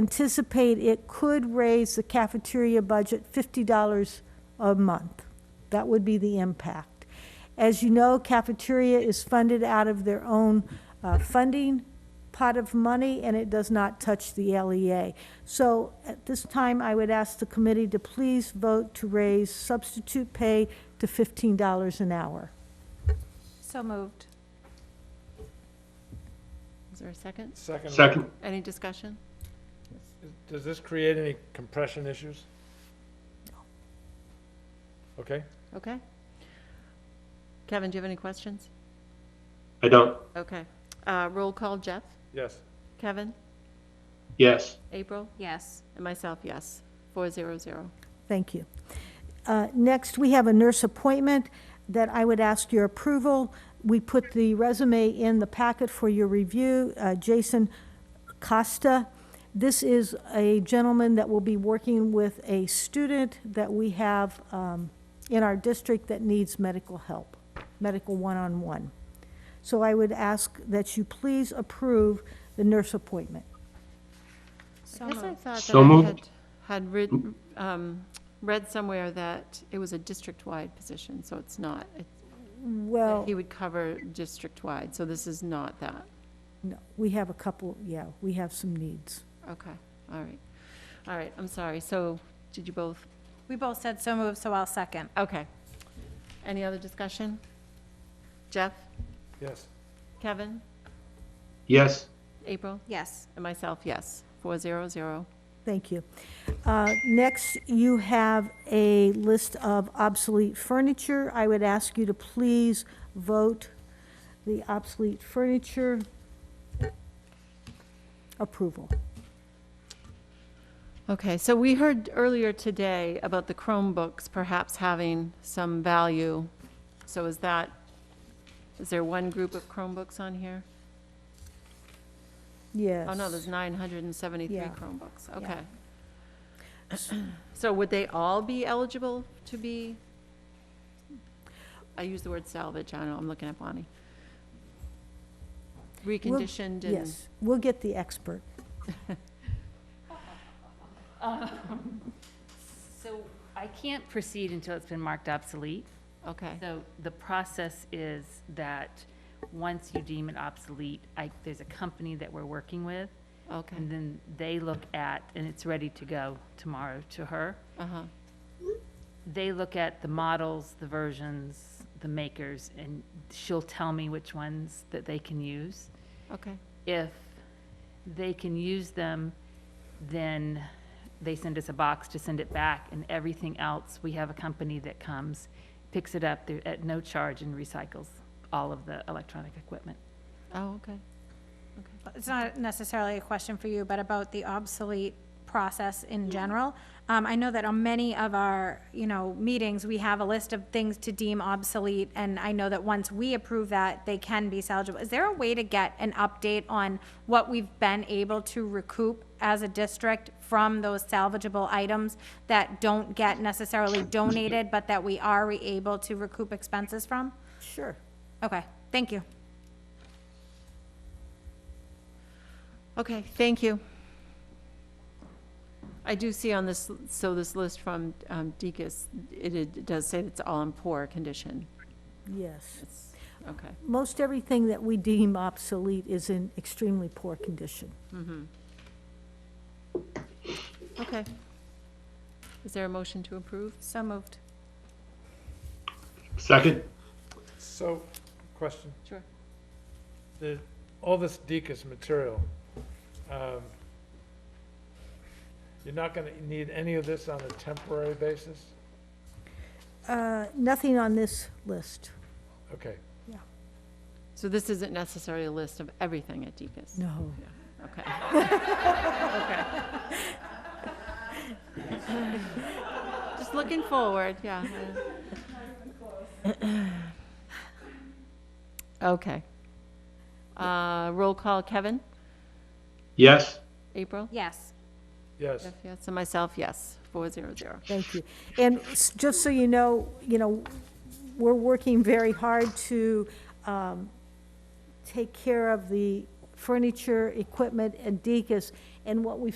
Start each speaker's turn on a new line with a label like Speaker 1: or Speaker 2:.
Speaker 1: anticipate it could raise the cafeteria budget $50 a month. That would be the impact. As you know, cafeteria is funded out of their own uh, funding pot of money, and it does not touch the LEA. So at this time, I would ask the committee to please vote to raise substitute pay to $15 an hour.
Speaker 2: So moved. Is there a second?
Speaker 3: Second.
Speaker 4: Second,
Speaker 2: Any discussion?
Speaker 3: Does this create any compression issues? Okay,
Speaker 2: Okay. Kevin, do you have any questions?
Speaker 4: I don't,
Speaker 2: Okay. Uh, Roll call, Jeff?
Speaker 3: yes.
Speaker 2: Kevin?
Speaker 4: yes.
Speaker 2: April?
Speaker 5: Yes.
Speaker 2: And myself, yes. Four zero zero.
Speaker 1: Thank you. Uh, Next, we have a nurse appointment that I would ask your approval. We put the resume in the packet for your review, uh, Jason Costa. This is a gentleman that will be working with a student that we have um, in our district that needs medical help, medical one-on-one. So I would ask that you please approve the nurse appointment.
Speaker 2: I guess I thought
Speaker 4: So
Speaker 2: that I
Speaker 4: moved.
Speaker 2: had, had read, um, read somewhere that it was a district-wide position, so it's not. It-
Speaker 4: Oh.
Speaker 1: Well.
Speaker 2: He would cover district-wide, so this is not that.
Speaker 1: No, we have a couple, yeah, we have some needs.
Speaker 2: Okay, all right. All right, I'm sorry. So did you both
Speaker 5: We both said so moved, so I'll second.
Speaker 2: Okay. Any other discussion? Jeff,
Speaker 3: Yes.
Speaker 2: Kevin,
Speaker 4: Yes,
Speaker 2: April,
Speaker 5: Yes.
Speaker 2: and myself, yes. Four zero zero.
Speaker 1: Thank you. Uh, Next, you have a list of obsolete furniture. I would ask you to please vote the obsolete furniture approval.
Speaker 2: Okay, so we heard earlier today about the Chromebooks perhaps having some value. So is that, is there one group of Chromebooks on here?
Speaker 1: Yes.
Speaker 2: Oh, no, there's nine hundred and seventy-three
Speaker 1: Yeah.
Speaker 2: Chromebooks,
Speaker 1: Yeah.
Speaker 2: okay. So would they all be eligible to be? I use the word salvage, I don't know, I'm looking at Bonnie. Reconditioned and,
Speaker 1: Yes, we'll get the expert.
Speaker 6: So I can't proceed until it's been marked obsolete.
Speaker 2: okay,
Speaker 6: So the process is that once you deem it obsolete, I, there's a company that we're working with,
Speaker 2: okay,
Speaker 6: and then they look at, and it's ready to go tomorrow to her.
Speaker 2: uh-huh,
Speaker 6: They look at the models, the versions, the makers, and she'll tell me which ones that they can use.
Speaker 2: okay,
Speaker 6: if they can use them, then they send us a box to send it back, and everything else, we have a company that comes, picks it up they're at no charge and recycles all of the electronic equipment.
Speaker 2: oh, okay.
Speaker 5: It's not necessarily a question for you, but about the obsolete process in general. Um, I know that on many of our, you know, meetings, we have a list of things to deem obsolete, and I know that once we approve that, they can be salvageable. Is there a way to get an update on what we've been able to recoup as a district from those salvageable items that don't get necessarily donated, but that we are able to recoup expenses from?
Speaker 1: Sure.
Speaker 5: Okay, thank you.
Speaker 2: Okay, thank you. I do see on this, so this list from um, Deacon's, it- it does say it's all in poor condition.
Speaker 1: Yes.
Speaker 2: It's, okay,
Speaker 1: Most everything that we deem obsolete is in extremely poor condition.
Speaker 2: okay. Is there a motion to approve?
Speaker 5: So moved.
Speaker 4: second,
Speaker 3: So, question,
Speaker 2: Sure.
Speaker 3: the, all this Deacon's material, um, you're not gonna need any of this on a temporary basis?
Speaker 1: Uh, Nothing on this list.
Speaker 3: Okay,
Speaker 2: So this isn't necessarily a list of everything at Deacon's?
Speaker 1: No.
Speaker 2: Okay. Okay. Just looking forward, yeah. Okay. Uh, Roll call, Kevin?
Speaker 4: yes,
Speaker 2: April?
Speaker 5: Yes.
Speaker 3: yes,
Speaker 2: Jeff, Yes, and myself, yes, four zero zero.
Speaker 1: Thank you. And s- just so you know, you know, we're working very hard to um, take care of the furniture, equipment, and decus. And what we've